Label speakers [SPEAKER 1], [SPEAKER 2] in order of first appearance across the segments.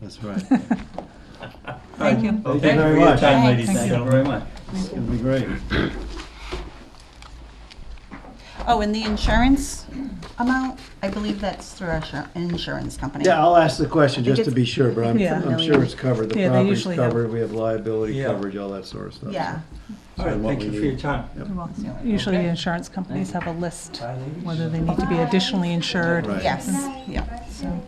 [SPEAKER 1] That's right.
[SPEAKER 2] Thank you.
[SPEAKER 1] Thank you
[SPEAKER 3] Thank you
[SPEAKER 1] very
[SPEAKER 3] for your
[SPEAKER 1] much.
[SPEAKER 3] time,
[SPEAKER 2] Thank
[SPEAKER 3] ladies
[SPEAKER 2] you.
[SPEAKER 3] and gentlemen.
[SPEAKER 1] It's gonna be great.
[SPEAKER 2] Oh, and the insurance amount, I believe that's through our insur- insurance company.
[SPEAKER 1] Yeah, I'll ask the question
[SPEAKER 4] think
[SPEAKER 1] just to
[SPEAKER 4] it's-
[SPEAKER 1] be sure, but I'm,
[SPEAKER 4] Yeah.
[SPEAKER 1] I'm sure it's covered. The
[SPEAKER 4] Yeah, they
[SPEAKER 1] property's
[SPEAKER 4] usually have-
[SPEAKER 1] covered, we have liability
[SPEAKER 3] Yeah.
[SPEAKER 1] coverage, all that sort of stuff.
[SPEAKER 2] Yeah.
[SPEAKER 3] All right,
[SPEAKER 1] what
[SPEAKER 3] thank
[SPEAKER 1] we
[SPEAKER 3] you for
[SPEAKER 1] need.
[SPEAKER 3] your time.
[SPEAKER 4] Usually
[SPEAKER 3] Okay.
[SPEAKER 4] insurance companies have a list,
[SPEAKER 3] Bye, ladies.
[SPEAKER 4] whether they need to be additionally insured.
[SPEAKER 1] Right.
[SPEAKER 2] Yes, yeah.
[SPEAKER 4] So,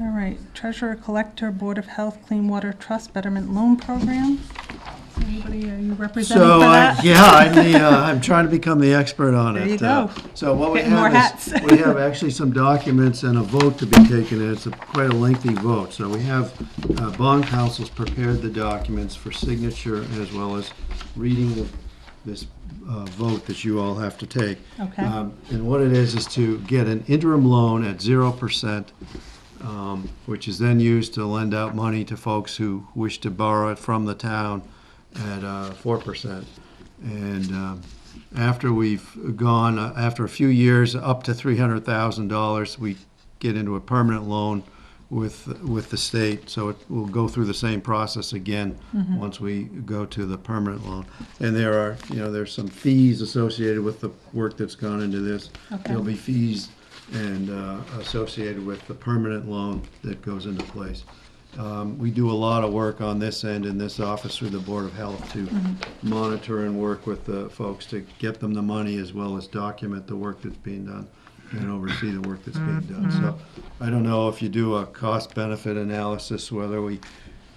[SPEAKER 4] All right, treasurer, collector, Board of Health, Clean Water Trust Betterment Loan Program. Is Anybody, are you representing for
[SPEAKER 1] So, I-
[SPEAKER 4] that?
[SPEAKER 1] yeah, I'm the, uh, I'm trying to become the expert on it.
[SPEAKER 4] There you
[SPEAKER 1] Uh,
[SPEAKER 4] go.
[SPEAKER 1] So what we
[SPEAKER 4] Getting more
[SPEAKER 1] have is,
[SPEAKER 4] hats.
[SPEAKER 1] we have actually some documents and a vote to be taken, and it's a- quite a lengthy vote. So we have, uh, bond councils prepared the documents for signature as well as reading the- this uh, vote that you all have to take.
[SPEAKER 4] Okay.
[SPEAKER 1] Um, And what it is, is to get an interim loan at zero percent um, which is then used to lend out money to folks who wish to borrow it from the town at uh, four percent. And um, after we've gone, uh, after a few years, up to three hundred thousand dollars, we get into a permanent loan with with the state. So it will go through the same process again once we go to the permanent loan. And there are, you know, there's some fees associated with the work that's gone into this.
[SPEAKER 4] Okay.
[SPEAKER 1] There'll be fees and uh, associated with the permanent loan that goes into place. Um, We do a lot of work on this end in this office through the Board of Health to monitor and work with the folks to get them the money as well as document the work that's being done and oversee the work that's being done. So I don't know if you do a cost benefit analysis, whether we,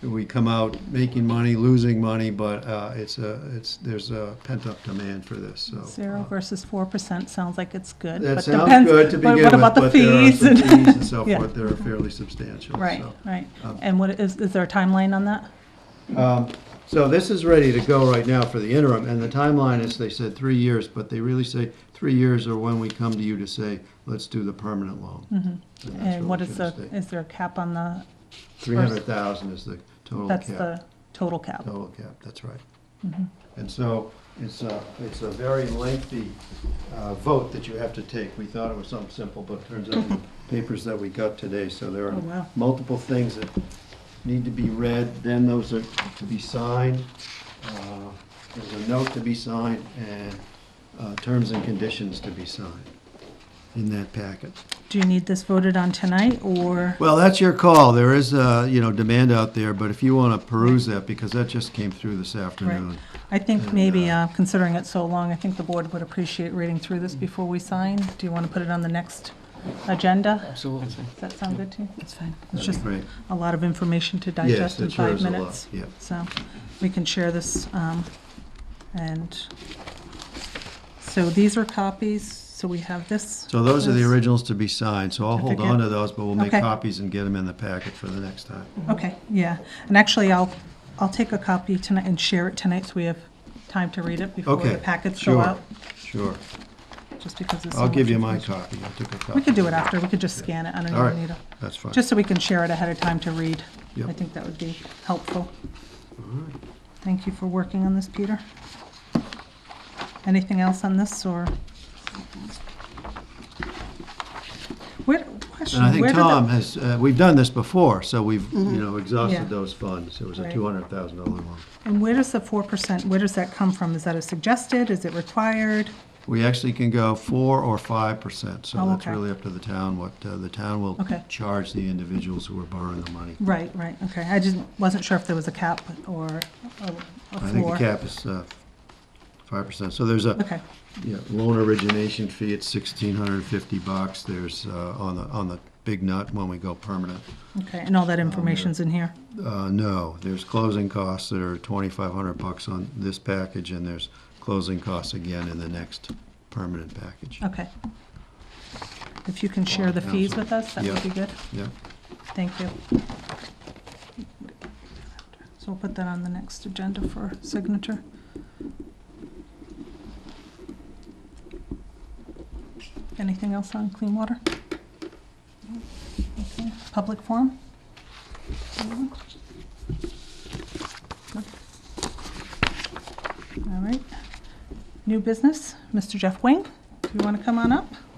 [SPEAKER 1] we come out making money, losing money, but uh, it's a, it's, there's a pent up demand for this, so.
[SPEAKER 4] Zero
[SPEAKER 1] uh,
[SPEAKER 4] versus four percent sounds like it's good.
[SPEAKER 1] that
[SPEAKER 4] but
[SPEAKER 1] sounds
[SPEAKER 4] depends-
[SPEAKER 1] good to
[SPEAKER 4] but
[SPEAKER 1] begin with,
[SPEAKER 4] What about the
[SPEAKER 1] but there are
[SPEAKER 4] fees?
[SPEAKER 1] some fees and so
[SPEAKER 4] Yeah.
[SPEAKER 1] forth that are fairly substantial.
[SPEAKER 4] Right,
[SPEAKER 1] so.
[SPEAKER 4] right.
[SPEAKER 1] um,
[SPEAKER 4] And what, is, is there a timeline on that?
[SPEAKER 1] So this is ready to go right now for the interim, and the timeline is, they said three years, but they really say three years are when we come to you to say, let's do the permanent loan. And that's
[SPEAKER 4] Mm-hmm. And what
[SPEAKER 1] we
[SPEAKER 4] is
[SPEAKER 1] should
[SPEAKER 4] the,
[SPEAKER 1] state.
[SPEAKER 4] is there a cap on the,
[SPEAKER 1] Three hundred thousand is the total
[SPEAKER 4] that's
[SPEAKER 1] cap,
[SPEAKER 4] the total cap?
[SPEAKER 1] total cap, that's right.
[SPEAKER 4] Mm-hmm.
[SPEAKER 1] And so, it's a, it's a very lengthy, uh, vote that you have to take. We thought it was something simple, but it turns out the papers that we got today, so there
[SPEAKER 4] Oh, wow.
[SPEAKER 1] are multiple things that need to be read, then those are to be signed. uh, There's a note to be signed and, uh, terms and conditions to be signed in that packet.
[SPEAKER 4] Do you need this voted on tonight, or?
[SPEAKER 1] Well, that's your call. There is, uh, you know, demand out there, but if you want to peruse that, because that just came through this afternoon.
[SPEAKER 4] Right. I think
[SPEAKER 1] And,
[SPEAKER 4] maybe,
[SPEAKER 1] uh, Mm-hmm.
[SPEAKER 4] uh, considering it so long, I think the board would appreciate reading through this before we sign. Do you want to put it on the next agenda? Absolutely. Does that sound good to you?
[SPEAKER 2] That's fine.
[SPEAKER 4] It's
[SPEAKER 1] That'd
[SPEAKER 4] just
[SPEAKER 1] be great.
[SPEAKER 4] a lot of information to digest in
[SPEAKER 1] that sure
[SPEAKER 4] five
[SPEAKER 1] is a lot,
[SPEAKER 4] minutes.
[SPEAKER 1] yeah.
[SPEAKER 4] So we can share this. um, And so these are copies, so we have this.
[SPEAKER 1] So those are the
[SPEAKER 4] this.
[SPEAKER 1] originals to be signed, so I'll hold
[SPEAKER 4] Certificate.
[SPEAKER 1] on to those, but we'll make
[SPEAKER 4] Okay.
[SPEAKER 1] copies and get them in the packet for the next time.
[SPEAKER 4] Okay, yeah. And actually, I'll, I'll take a copy tonight and share it tonight so we have time to read it before
[SPEAKER 1] Okay.
[SPEAKER 4] the packets go
[SPEAKER 1] sure,
[SPEAKER 4] out.
[SPEAKER 1] Sure.
[SPEAKER 4] Just because there's so
[SPEAKER 1] I'll give
[SPEAKER 4] much
[SPEAKER 1] you my copy.
[SPEAKER 4] information.
[SPEAKER 1] I took a copy.
[SPEAKER 4] We could do it after, we could just scan it, I don't
[SPEAKER 1] All
[SPEAKER 4] even
[SPEAKER 1] right,
[SPEAKER 4] need it,
[SPEAKER 1] that's fine.
[SPEAKER 4] just so we can share it ahead of time to read.
[SPEAKER 1] Yep.
[SPEAKER 4] I think that would be helpful. Thank you for working on this, Peter. Anything else on this, or? Where,
[SPEAKER 1] And I
[SPEAKER 4] question,
[SPEAKER 1] think
[SPEAKER 4] where did
[SPEAKER 1] Tom
[SPEAKER 4] the, Mm-hmm.
[SPEAKER 1] has, uh, we've done this before, so we've, you know,
[SPEAKER 4] Yeah.
[SPEAKER 1] exhausted those funds. It was a
[SPEAKER 4] Right.
[SPEAKER 1] two hundred thousand dollar loan.
[SPEAKER 4] and where does the four percent, where does that come from? Is that a suggested, is it required?
[SPEAKER 1] We actually can go four or five percent, so
[SPEAKER 4] Oh,
[SPEAKER 1] that's
[SPEAKER 4] okay.
[SPEAKER 1] really up to the town, what, uh, the town will
[SPEAKER 4] Okay.
[SPEAKER 1] charge the individuals who are borrowing the money.
[SPEAKER 4] Right, right, okay, I just wasn't sure if there was a cap or a- a
[SPEAKER 1] I think the
[SPEAKER 4] floor.
[SPEAKER 1] cap is uh, five percent, so there's a,
[SPEAKER 4] Okay,
[SPEAKER 1] yeah, loan origination fee, it's sixteen hundred and fifty bucks, there's, uh, on the, on the big nut when we go permanent.
[SPEAKER 4] okay, and all that information's in here?
[SPEAKER 1] Uh, no, there's closing costs that are twenty-five hundred bucks on this package, and there's closing costs again in the next permanent package.
[SPEAKER 4] Okay. If you can share the fees with us, that would be good.
[SPEAKER 1] Yeah,
[SPEAKER 4] Thank you. So we'll put that on the next agenda for signature. Anything else on clean water? Okay. Public forum? Anyone? No? All right. New business, Mr. Jeff Wing, do you want to come on up?